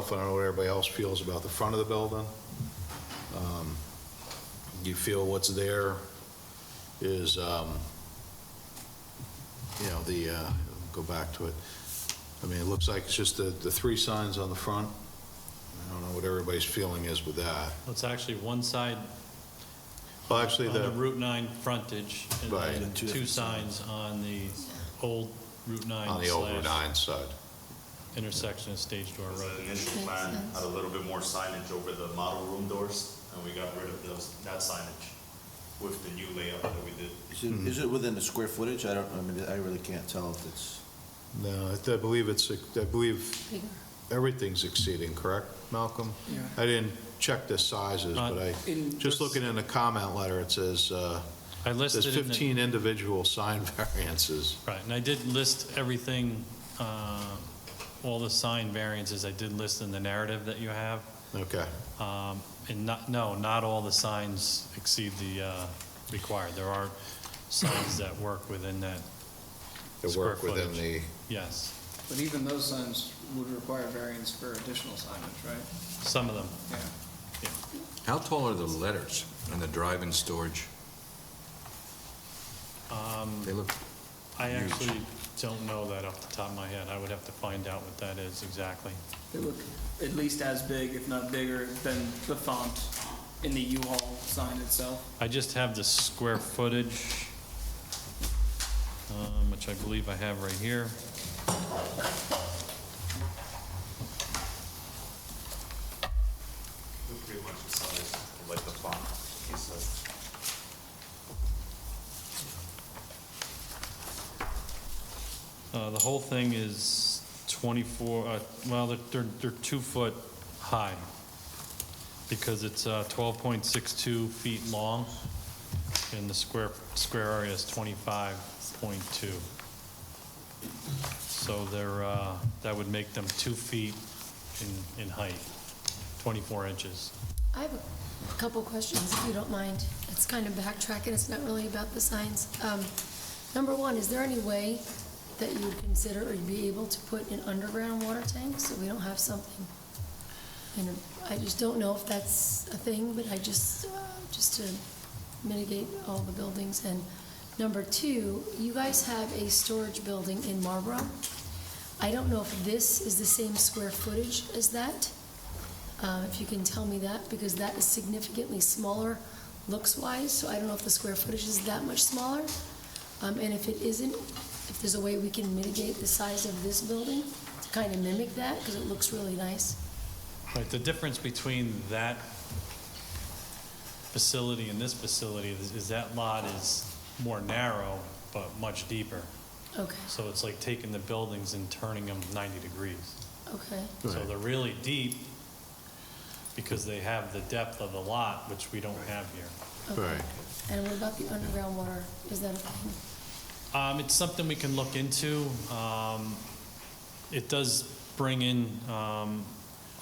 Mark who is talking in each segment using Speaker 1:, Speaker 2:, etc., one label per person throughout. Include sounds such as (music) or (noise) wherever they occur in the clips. Speaker 1: myself, I don't know what everybody else feels about the front of the building. Um, You feel what's there is, um, you know, the, uh, go back to it. I mean, it looks like it's just the, the three signs on the front. I don't know what everybody's feeling is with that.
Speaker 2: It's actually one side
Speaker 1: Well, actually,
Speaker 2: on the
Speaker 1: the,
Speaker 2: Route 9 frontage, and
Speaker 1: Right.
Speaker 2: then
Speaker 1: And two
Speaker 2: two
Speaker 3: different
Speaker 2: signs on the old Route 9
Speaker 1: on the over
Speaker 2: slash
Speaker 1: nine side.
Speaker 2: intersection of Stage Door
Speaker 4: Because the
Speaker 2: Road.
Speaker 4: initial
Speaker 5: Makes
Speaker 4: plan
Speaker 5: sense.
Speaker 4: had a little bit more signage over the model room doors, and we got rid of those, that signage with the new layout that we did.
Speaker 3: Is it, is it within the square footage? I don't, I mean, I really can't tell if it's,
Speaker 1: No, I I believe it's, I believe
Speaker 5: bigger.
Speaker 1: everything's exceeding, correct, Malcolm?
Speaker 6: Yeah.
Speaker 1: I didn't check the sizes,
Speaker 2: Uh,
Speaker 1: but I,
Speaker 6: in
Speaker 1: just
Speaker 6: this-
Speaker 1: looking in the comment letter, it says, uh,
Speaker 2: I
Speaker 1: there's
Speaker 2: listed in the-
Speaker 1: 15 individual sign (laughs) variances.
Speaker 2: Right, and I did list everything, uh, all the sign variances I did list in the narrative that you have.
Speaker 1: Okay,
Speaker 2: Um, And not, no, not all the signs exceed the uh, required. There are signs that work within that,
Speaker 1: to
Speaker 2: Square
Speaker 1: work within the,
Speaker 2: footage. yes,
Speaker 6: But even those signs would require variance for additional signage, right?
Speaker 2: some of them.
Speaker 6: Yeah.
Speaker 7: How tall are the letters on the drive-in storage? They look,
Speaker 2: I actually don't know that off the top of my head. I would have to find out what that is exactly.
Speaker 8: They look at least as big, if not bigger, than the font in the U-Haul sign itself.
Speaker 2: I just have the square footage, um, which I believe I have right here.
Speaker 4: Pretty much the size, like the font, he said.
Speaker 2: Uh, The whole thing is 24, uh, well, they're- they're, they're two foot high because it's uh, 12.62 feet long and the square, square area is 25.2. So they're, uh, that would make them two feet in, in height, 24 inches.
Speaker 5: I have a couple questions, if you don't mind. It's kind of backtracking, it's not really about the signs. Um, Number one, is there any way that you would consider or you'd be able to put an underground water tank so we don't have something? You know, I just don't know if that's a thing, but I just, uh, just to mitigate all the buildings. And number two, you guys have a storage building in Marlboro. I don't know if this is the same square footage as that. Uh, If you can tell me that, because that is significantly smaller looks-wise, so I don't know if the square footage is that much smaller. Um, And if it isn't, if there's a way we can mitigate the size of this building to kind of mimic that, because it looks really nice.
Speaker 2: Right, the difference between that facility and this facility is is that lot is more narrow, but much deeper.
Speaker 5: Okay,
Speaker 2: So it's like taking the buildings and turning them 90 degrees.
Speaker 5: okay,
Speaker 2: So they're really deep because they have the depth of the lot, which we don't have here.
Speaker 5: okay.
Speaker 1: right,
Speaker 5: And what about the underground water? Is that a thing?
Speaker 2: Um, It's something we can look into. Um, It does bring in um,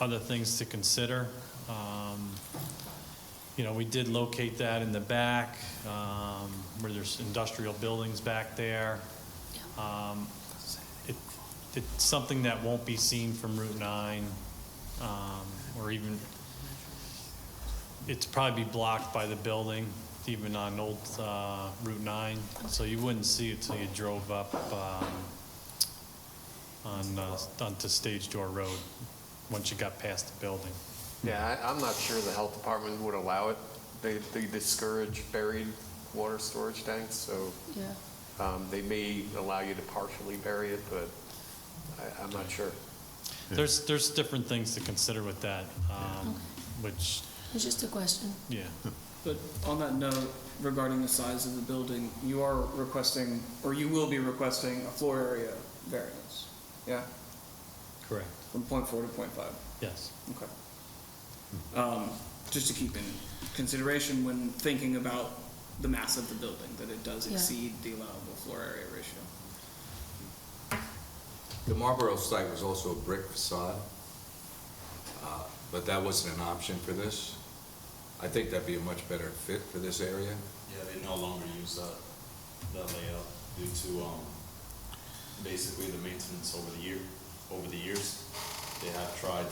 Speaker 2: other things to consider. Um, You know, we did locate that in the back, um, where there's industrial buildings back there. Um, it- It's something that won't be seen from Route 9, um, or even, it's probably blocked by the building, even on old uh, Route 9, so you wouldn't see it till you drove up um, on, uh, onto Stage Door Road, once you got past the building.
Speaker 9: Yeah, I, I'm not sure the health department would allow it. They, they discourage buried water storage tanks, so,
Speaker 5: Yeah.
Speaker 9: um, they may allow you to partially bury it, but I, I'm not sure.
Speaker 2: There's, there's different things to consider with that, um, which,
Speaker 5: It's just a question.
Speaker 2: yeah,
Speaker 8: But on that note, regarding the size of the building, you are requesting, or you will be requesting a floor area variance, yeah?
Speaker 2: correct,
Speaker 8: From .4 to .5,
Speaker 2: yes.
Speaker 8: okay. Um, Just to keep in consideration when thinking about the mass of the building, that it does
Speaker 5: Yeah.
Speaker 8: exceed the allowable floor area ratio.
Speaker 7: the Marlboro site was also a brick facade, uh, but that wasn't an option for this. I think that'd be a much better fit for this area.
Speaker 4: Yeah, they no longer use that, that layout due to, um, basically the maintenance over the year, over the years. They have tried